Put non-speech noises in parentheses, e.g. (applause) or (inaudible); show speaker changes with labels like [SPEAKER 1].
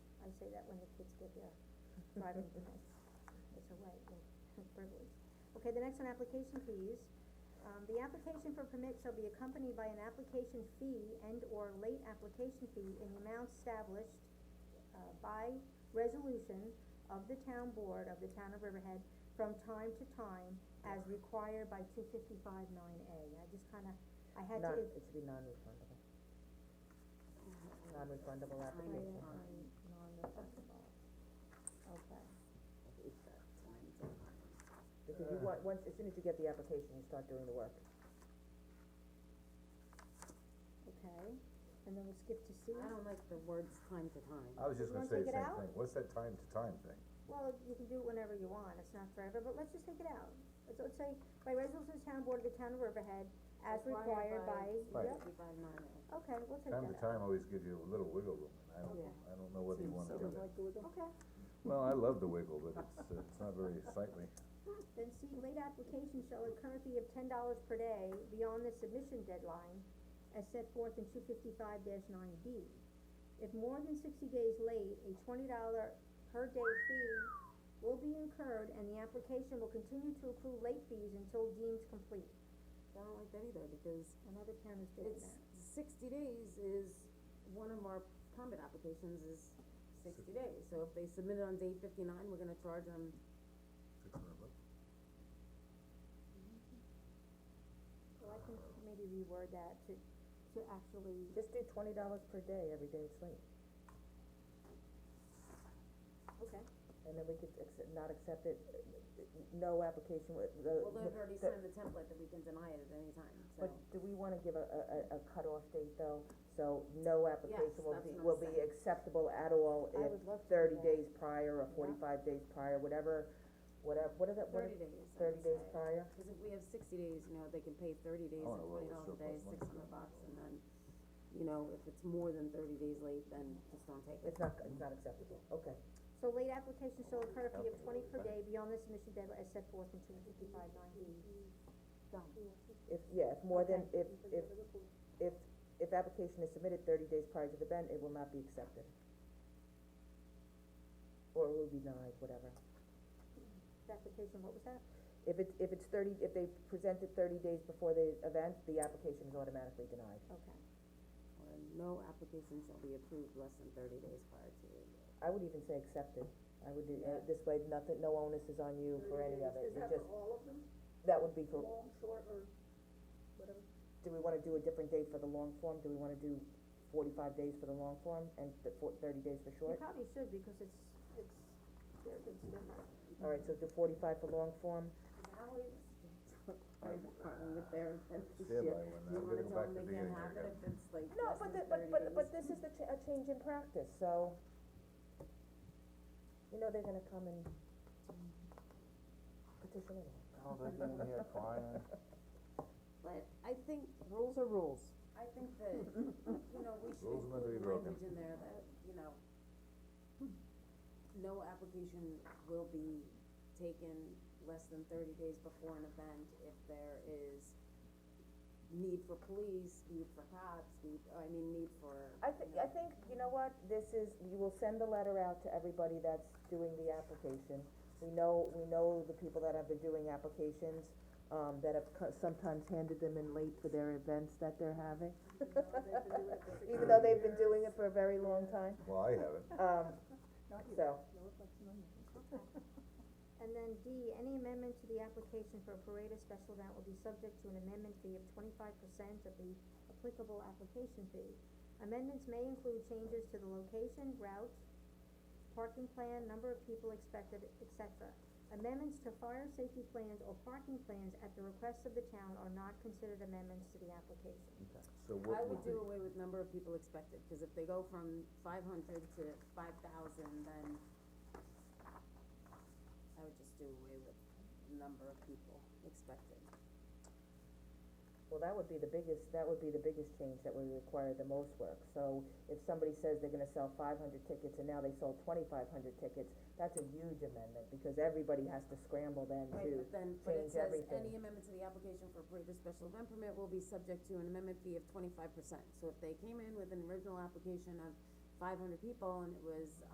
[SPEAKER 1] say that when the kids get their
[SPEAKER 2] (laughs)
[SPEAKER 1] driving permits. It's a right, a (laughs) privilege. Okay, the next one, application fees. Um, the application for permit shall be accompanied by an application fee and/or late application fee in the amount established, uh, by resolution of the town board of the town of Riverhead from time to time as required by two fifty-five nine A. I just kinda, I had
[SPEAKER 2] Non,
[SPEAKER 1] to.
[SPEAKER 2] it should be non-refundable. Non-refundable
[SPEAKER 1] I, uh,
[SPEAKER 2] application.
[SPEAKER 1] I'm non-refundable. Okay.
[SPEAKER 2] Because you want, once, as soon as you get the application, you start doing the work.
[SPEAKER 1] Okay, and then we'll skip to C.
[SPEAKER 3] I don't like the words time to time.
[SPEAKER 4] I was just
[SPEAKER 1] Does one
[SPEAKER 4] gonna say
[SPEAKER 1] take
[SPEAKER 4] the
[SPEAKER 1] it
[SPEAKER 4] same
[SPEAKER 1] out?
[SPEAKER 4] thing, what's that time to time thing?
[SPEAKER 1] Well, you can do it whenever you want, it's not forever, but let's just take it out. Let's, let's say, by resolution of the town board of the town of Riverhead, as required by,
[SPEAKER 4] Right.
[SPEAKER 1] yep, okay, we'll take that out.
[SPEAKER 4] Time to time always gives you a little wiggle room, and I don't,
[SPEAKER 3] Yeah.
[SPEAKER 4] I don't know whether you wanna do that.
[SPEAKER 1] Okay,
[SPEAKER 4] Well, I love the wiggle, but it's, uh, it's not very sightly.
[SPEAKER 1] then C, late application shall incur a fee of ten dollars per day beyond the submission deadline as set forth in two fifty-five nine B. If more than sixty days late, a twenty dollar per day fee will be incurred and the application will continue to accrue late fees until deemed complete.
[SPEAKER 3] I don't like that either, because
[SPEAKER 1] Another town is doing
[SPEAKER 3] it's,
[SPEAKER 1] that.
[SPEAKER 3] sixty days is, one of our permit applications is sixty days. So if they submit it on day fifty-nine, we're gonna charge them,
[SPEAKER 1] Well, I can maybe reword that to, to actually,
[SPEAKER 2] Just do twenty dollars per day, every day it's late,
[SPEAKER 1] okay,
[SPEAKER 2] and then we could accept, not accept it, uh, uh, no application with, the.
[SPEAKER 3] well, they've already
[SPEAKER 2] the-
[SPEAKER 3] signed the template that we can deny it at any time, so.
[SPEAKER 2] But do we wanna give a, a, a- a cutoff date though, so no application will
[SPEAKER 3] that's
[SPEAKER 2] be,
[SPEAKER 3] what I'm
[SPEAKER 2] will be
[SPEAKER 3] saying.
[SPEAKER 2] acceptable at all
[SPEAKER 1] I
[SPEAKER 2] if
[SPEAKER 1] would love to do
[SPEAKER 2] thirty
[SPEAKER 1] that.
[SPEAKER 2] days prior or forty-five days prior, whatever, whatever, what is it, what
[SPEAKER 3] Thirty
[SPEAKER 2] is,
[SPEAKER 3] days, I
[SPEAKER 2] thirty
[SPEAKER 3] would
[SPEAKER 2] days
[SPEAKER 3] say.
[SPEAKER 2] prior?
[SPEAKER 3] Cause if we have sixty days, you know, they can pay thirty days
[SPEAKER 4] wanna
[SPEAKER 3] at
[SPEAKER 4] roll
[SPEAKER 3] twenty
[SPEAKER 4] with
[SPEAKER 3] dollars a day,
[SPEAKER 4] Oh, surplus
[SPEAKER 3] six
[SPEAKER 4] money.
[SPEAKER 3] hundred bucks, and then, you know, if it's more than thirty days late, then just don't take it.
[SPEAKER 2] It's not, it's not acceptable, okay.
[SPEAKER 1] so late application shall occur if you have twenty per day beyond the submission deadline as set forth in two fifty-five nine E.
[SPEAKER 3] Done.
[SPEAKER 2] If, yeah, if more than, if, if, if, if application is submitted thirty days prior to the event, it will not be accepted. Or it will be denied, whatever.
[SPEAKER 1] Application, what was that?
[SPEAKER 2] If it's, if it's thirty, if they present it thirty days before the event, the application is automatically denied.
[SPEAKER 1] Okay,
[SPEAKER 3] Or no application shall be approved less than thirty days prior to.
[SPEAKER 2] I would even say accepted, I would do, uh, this way, nothing, no onus is on you for any of it, you
[SPEAKER 5] Is that
[SPEAKER 2] just,
[SPEAKER 5] for all of them,
[SPEAKER 2] that would be for,
[SPEAKER 5] long, short, or
[SPEAKER 2] (laughs)
[SPEAKER 5] whatever?
[SPEAKER 2] do we wanna do a different date for the long form, do we wanna do forty-five days for the long form and th- for- thirty days for
[SPEAKER 1] you
[SPEAKER 2] short?
[SPEAKER 1] probably should, because it's, it's, they're, it's different.
[SPEAKER 2] Alright, so do forty-five for long form,
[SPEAKER 3] Fire department with their
[SPEAKER 4] Stand by when I'm gonna go back
[SPEAKER 3] You wanna tell them
[SPEAKER 4] to the beginning here,
[SPEAKER 3] they can't have it if it's like
[SPEAKER 2] No,
[SPEAKER 3] less
[SPEAKER 2] but
[SPEAKER 3] than
[SPEAKER 2] the, but, but, but
[SPEAKER 3] 30
[SPEAKER 2] this
[SPEAKER 3] days?
[SPEAKER 2] is the cha- a change in practice, so. You know they're gonna come and petition it.
[SPEAKER 4] Oh, they're gonna be crying.
[SPEAKER 3] But I think. Rules are rules. I think that, you know, we should
[SPEAKER 4] Rules are meant to be
[SPEAKER 3] include
[SPEAKER 4] broken.
[SPEAKER 3] language in there that, you know, no application will be taken less than thirty days before an event if there is need for police, need for cops, need, I mean, need for.
[SPEAKER 2] I thi- I think, you know what, this is, you will send the letter out to everybody that's doing the application. We know, we know the people that have been doing applications, um, that have co- sometimes handed them in late for their events that they're having. Even though they've been doing it for a very long time,
[SPEAKER 4] Well, I haven't,
[SPEAKER 2] um, so.
[SPEAKER 1] And then D, any amendment to the application for a parade or special event will be subject to an amendment fee of twenty-five percent of the applicable application fee. Amendments may include changes to the location, route, parking plan, number of people expected, et cetera. Amendments to fire safety plans or parking plans at the request of the town are not considered amendments to the application.
[SPEAKER 4] so
[SPEAKER 3] I would
[SPEAKER 4] what would
[SPEAKER 3] do
[SPEAKER 4] be,
[SPEAKER 3] away with number of people expected, cause if they go from five hundred to five thousand, then I would just do away with number of people expected.
[SPEAKER 2] Well, that would be the biggest, that would be the biggest change that would require the most work. So if somebody says they're gonna sell five hundred tickets and now they sold twenty-five hundred tickets, that's a huge amendment because everybody has to scramble then
[SPEAKER 3] Right,
[SPEAKER 2] to
[SPEAKER 3] but then, but it
[SPEAKER 2] change
[SPEAKER 3] says,
[SPEAKER 2] everything.
[SPEAKER 3] any amendment to the application for a parade or special event permit will be subject to an amendment fee of twenty-five percent. So if they came in with an original application of five hundred people and it was